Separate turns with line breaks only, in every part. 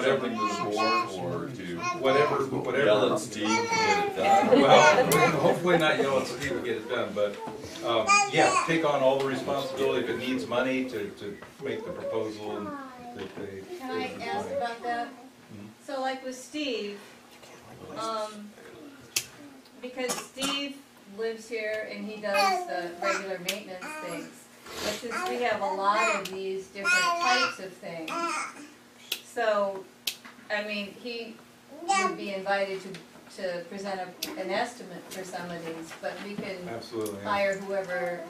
whatever the board or to whatever whatever.
Yell at Steve to get it done.
Well, hopefully not yell at Steve to get it done, but um, yeah, take on all the responsibility if it needs money to to make the proposal and that they.
Can I ask about that? So like with Steve, um, because Steve lives here and he does the regular maintenance things. But since we have a lot of these different types of things, so, I mean, he would be invited to, to present a, an estimate for some of these, but we can
Absolutely. yeah.
hire whoever,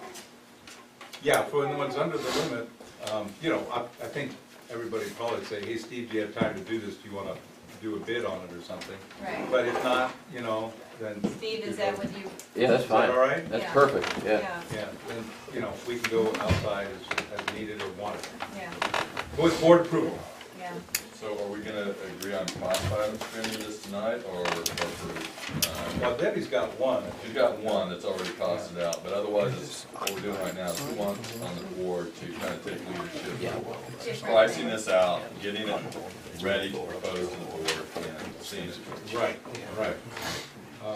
Yeah, for the ones under the limit, um, you know, I, I think everybody would probably say, hey, Steve, do you have time to do this? Do you wanna do a bid on it or something?
right?
But if not, you know, then.
Steve, is that what you,
Yeah, that's
Is that
fine.
all right?
That's
Yeah.
perfect, yeah.
yeah,
Yeah, then, you know, we can go outside as, as needed or wanted.
yeah,
With board approval.
yeah.
So are we gonna agree on cost items for any of this tonight, or, or for, uh,
Now Debbie's got one.
you've got one that's already costed out, but otherwise, it's, what we're doing right now is we want on the board to kind of take leadership.
Different
Pricing
things.
this out, getting it ready to propose to the board, and seeing it.
Right, right.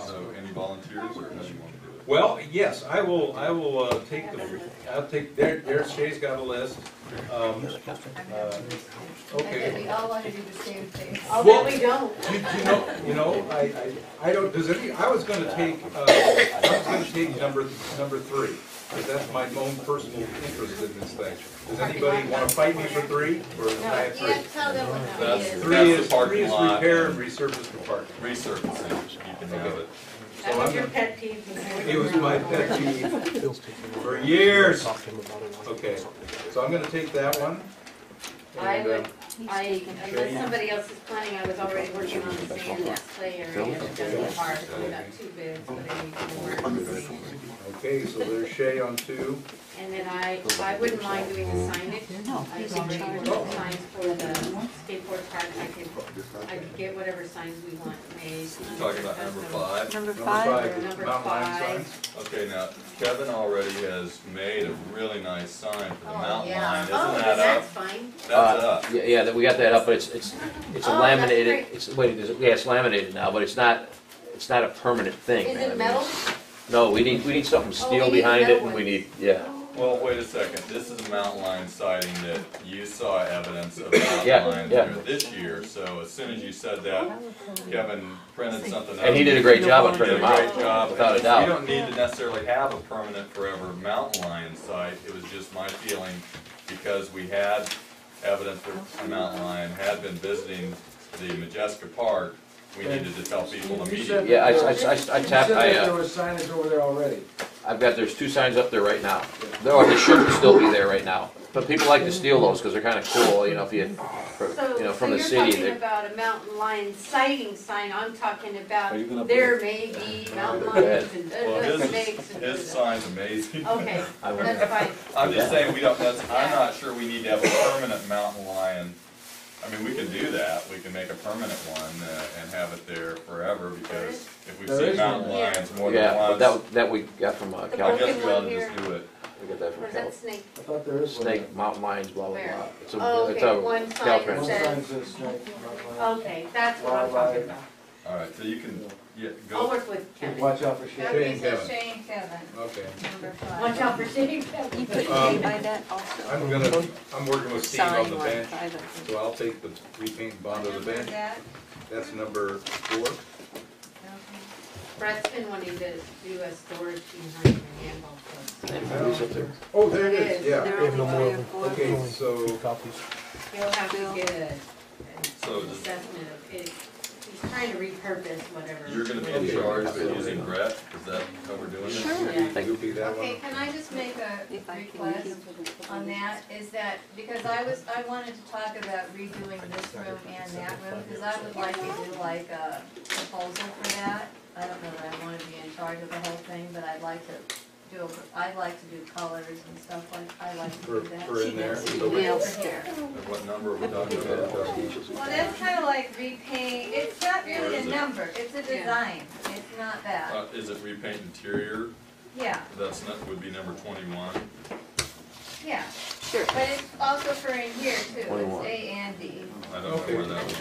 So any volunteers, or how do you want to do it?
Well, yes, I will, I will, uh, take the, I'll take, there, there, Shay's got a list. Um,
I'm
uh,
happy. I think
okay.
we all want to do the same thing.
Oh,
Well-
no, we don't.
You, you know, you know, I, I, I don't, does any, I was gonna take, uh, I was gonna take number, number three. Cause that's my own personal interest in this thing. Does anybody wanna fight me for three? Or
No,
I have three?
can't tell them what that
That's-
is.
Three
That's the
is,
parking
three is
lot.
repair and resurface the park.
Resurfacing, you can have it.
That was your pet peeve.
It was my pet peeve.
Bill's taking over.
For years.
Talk to him about it.
Okay, so I'm gonna take that one.
I
And,
would,
uh,
I, unless somebody else is planning, I was already working on the sand that's play area, and then the park, we got two bids, but I need to work.
uh, Okay, so there's Shay on two.
And then I, I wouldn't mind doing the signage, I've already worked on signs for the skateboard park, I could, I could get whatever signs we want made.
We're Talking about number five.
Number
Number
five,
five is
Number
mountain lion
five.
signs.
Okay, now Kevin already has made a really nice sign for the
Oh,
mountain
yeah.
line, isn't
Oh,
that up?
that's fine,
That's
Uh,
up.
Yeah, yeah, that- we got that up, but it's, it's, it's a
Oh, that's
laminated,
great.
it's, wait, is it- yeah, it's laminated now, but it's not, it's not a permanent thing.
is
man. I
it
mean,
metal? Oh,
No, we need, we need something
we
steel
need
behind it,
metal
and we
ones.
need, yeah.
Well, wait a second, this is a mountain line sighting that you saw evidence of mountain
Yeah,
lion
yeah.
there this year, so as soon as you said that, Kevin printed something up.
And he did a great job of
He did a
printing them
great
out,
job.
without a
We
doubt.
don't need to necessarily have a permanent forever mountain lion site, it was just my feeling, because we had evidence that the mountain lion had been visiting the Majeska Park, we needed to tell people
You
immediately.
said-
Yeah, I, I, I I
You
tapped,
said
I,
that There
uh,
was signage over there already.
I've got, there's two signs up there right now. No, they should still be there right now, but people like to steal those, because they're kinda cool, you know, if you,
So,
you know,
so
from the
you're
city.
talking
they-
about a mountain lion sighting sign, I'm talking about,
Are you gonna
there may be mountain
Go ahead.
lions and
Well,
uh,
his, is-
snakes and. uh,
his sign's amazing.
Okay,
I wonder-
that's fine,
I'm just saying, we don't, that's, I'm not sure we need to have a permanent mountain lion. I mean, we can do that, we can make a permanent one uh, and have it there forever, because if we've
There
seen
is
mountain
one. Yeah.
lions more
Yeah,
than
but
once,
that, that we got from, uh,
I
Cal,
Okay,
guess we ought
one
to
here.
just do it.
we got that from
where's
Cal.
that snake?
I thought there is one. there.
Snake, mountain lions, blah, blah,
Where?
blah. It's a,
Oh,
it's
okay, one
a
sign
Caltrans.
One
says-
sign says snake, mountain lion.
Okay, that's what I'm talking about,
All right, so you can, yeah,
I'll
go,
work with Kevin, watch
Watch out for shit.
That
Shane
would be so
Kevin.
Shane Kevin,
Okay,
number five.
out for Shane.
you put
Um,
three by that also.
I'm gonna, I'm working with Steve on
Sign
the
one
bench,
by the.
so I'll take the repaint bond of the
Remember
bench.
that?
That's number four.
Okay.
Brett's been wanting to do a storage behind the handball court.
Who's up there?
Oh, there it is, yeah.
There
We have no
are
more
only
of them.
four.
Okay,
Only Two
so,
copies.
He'll have to get a, an
So just-
assessment of it, he's trying to repurpose whatever.
you're gonna be in
Okay.
charge of using Brett, is that how we're doing this?
Sure.
Yeah.
you'll be that
Okay,
one.
can I just make
If
a
I can
request
keep.
on that, is that, because I was, I wanted to talk about redoing this room and that room, because I would like to do like a proposal for that. I don't know that I want to be in charge of the whole thing, but I'd like to do, a- I like to do colors and stuff like, I like to do
For,
that.
for in there. So uh, we-
Nails there.
And What number are we talking about?
Well, that's kind of like repaint, it's not really a number, it's a design, it's not that,
Uh, is it repaint interior?
yeah,
That's not, would be number twenty-one.
yeah.
Sure.
But it's also for in here too, it's
Twenty-one.
A and D.
I don't know where that would be.